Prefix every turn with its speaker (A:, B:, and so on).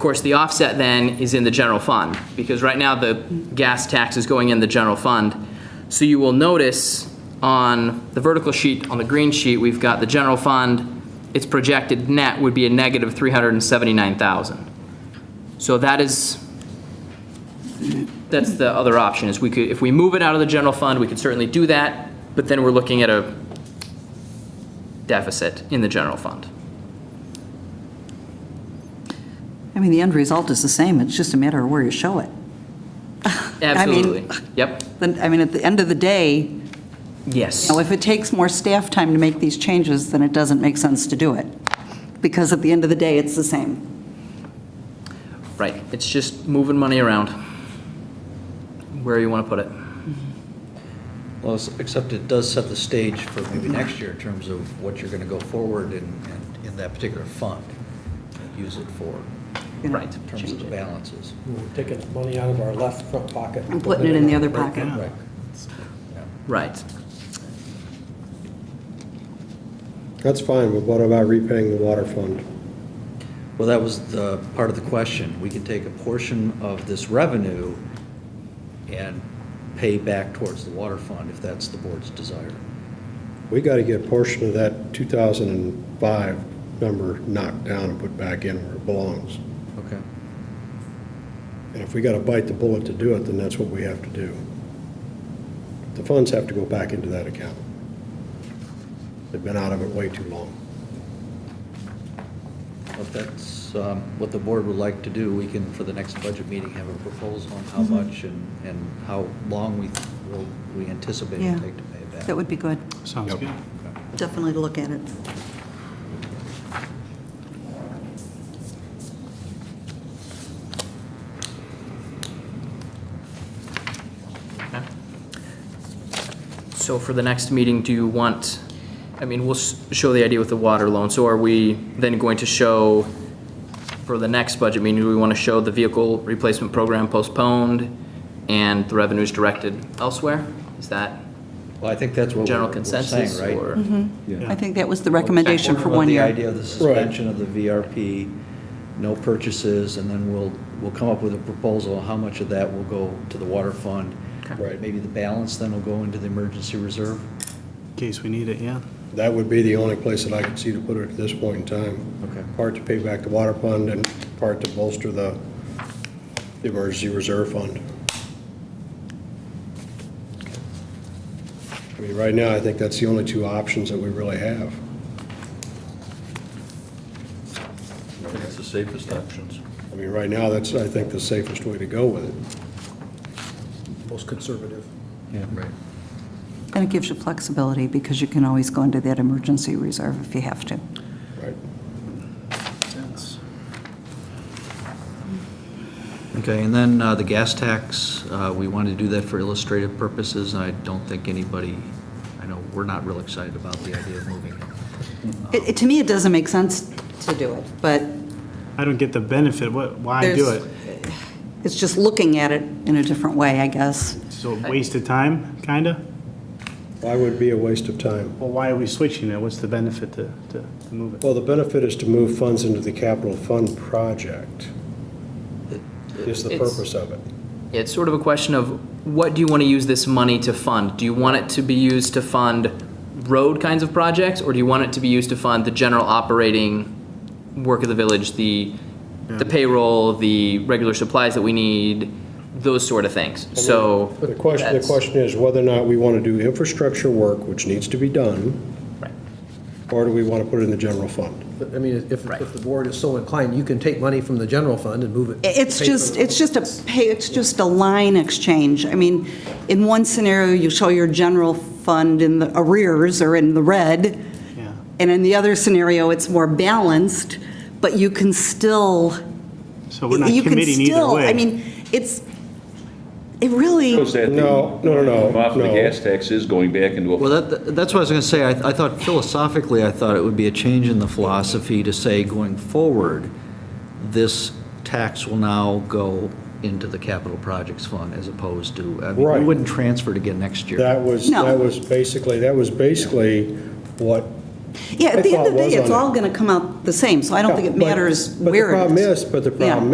A: Of course, the offset then is in the general fund, because right now the gas tax is going in the general fund. So you will notice on the vertical sheet, on the green sheet, we've got the general fund, its projected net would be a negative 379,000. So that is, that's the other option, is we could, if we move it out of the general fund, we could certainly do that, but then we're looking at a deficit in the general fund.
B: I mean, the end result is the same, it's just a matter of where you show it.
A: Absolutely. Yep,
B: Then, I mean, at the end of the day,
A: yes.
B: you know, if it takes more staff time to make these changes, then it doesn't make sense to do it, because at the end of the day, it's the same.
A: Right, it's just moving money around where you want to put it.
C: Well, it's- except it does set the stage for maybe next year in terms of what you're going to go forward in, in- in that particular fund, and use it for,
B: you know,
A: Right.
C: in terms of the balances.
D: We're taking money out of our left front pocket.
B: And putting it in the other pocket.
C: Right. Yeah.
A: Right.
E: That's fine, but what about repaying the water fund?
C: Well, that was the part of the question. We can take a portion of this revenue and pay back towards the water fund if that's the board's desire.
E: We got to get a portion of that 2005 number knocked down and put back in where it belongs.
C: Okay.
E: And if we got to bite the bullet to do it, then that's what we have to do. The funds have to go back into that account. They've been out of it way too long.
C: If that's um, what the board would like to do, we can, for the next budget meeting, have a proposal on how
B: Mm-hmm.
C: much and, and how long we, will we anticipate
B: Yeah.
C: it take to pay it back.
B: That would be good,
F: Sounds good.
B: definitely to look at it.
A: So for the next meeting, do you want, I mean, we'll s- show the idea with the water loan. So are we then going to show, for the next budget meeting, do we want to show the vehicle replacement program postponed and the revenues directed elsewhere? Is that
C: Well, I think that's what we're
A: general
C: we're saying,
A: consensus
C: right?
A: or?
B: I think that was the recommendation for
C: About
B: one
C: The
B: year.
C: idea of the suspension of the VRP, no purchases, and then we'll, we'll come up with a proposal, on how much of that will go to the water fund.
A: Okay.
E: Right.
C: Maybe the balance then will go into the emergency reserve.
F: In case we need it, yeah.
E: That would be the only place that I could see to put it at this point in time.
C: Okay.
E: Part to pay back the water fund and part to bolster the the emergency reserve fund. I mean, right now, I think that's the only two options that we really have.
G: It's the safest options.
E: I mean, right now, that's, I think, the safest way to go with it.
D: Most conservative.
C: Yeah. Right.
B: And it gives you flexibility, because you can always go into that emergency reserve if you have to.
E: Right.
C: Okay, and then uh, the gas tax, uh, we wanted to do that for illustrative purposes, and I don't think anybody, I know, we're not real excited about the idea of moving it.
B: It, it- to me, it doesn't make sense to do it, but
F: I don't get the benefit, what, why do
B: There's-
F: it?
B: it's just looking at it in a different way, I guess.
F: So wasted time, kinda?
E: Why would it be a waste of time?
F: Well, why are we switching it? What's the benefit to, to to move it?
E: Well, the benefit is to move funds into the capital fund project, is the
A: It's-
E: purpose of it.
A: It's sort of a question of what do you want to use this money to fund? Do you want it to be used to fund road kinds of projects, or do you want it to be used to fund the general operating work of the village, the the payroll, the regular supplies that we need, those sort of things? So
E: The question, the
A: that's-
E: question is whether or not we want to do infrastructure work, which needs to be done,
A: Right.
E: or do we want to put it in the general fund?
D: But, I mean, if, if the board is so inclined, you can take money from the general fund and move it.
B: It's
D: pay for
B: just,
D: the-
B: it's just a, pay. it's just a line exchange. I mean, in one scenario, you show your general fund in the arrears or in the red,
F: Yeah.
B: and in the other scenario, it's more balanced, but you can still,
F: So we're not
B: you can
F: committing either
B: still,
F: way.
B: I mean, it's, it really,
G: Because that,
E: No, no, no,
G: off the
E: no.
G: gas tax is going back into a,
C: Well, that, that's what I was going to say. I, I thought philosophically, I thought it would be a change in the philosophy to say, going forward, this tax will now go into the capital projects fund as opposed to, I mean, we
E: Right.
C: wouldn't transfer it again next year.
E: That was,
B: No.
E: that was basically, that was basically what.
B: yeah,
E: my
B: at the end
E: thought
B: of the day,
E: was
B: it's
E: on it.
B: all going to come out the same, so I don't think it
E: But-
B: matters
E: but the
B: where it is.
E: problem is- But the
B: Yeah.
E: problem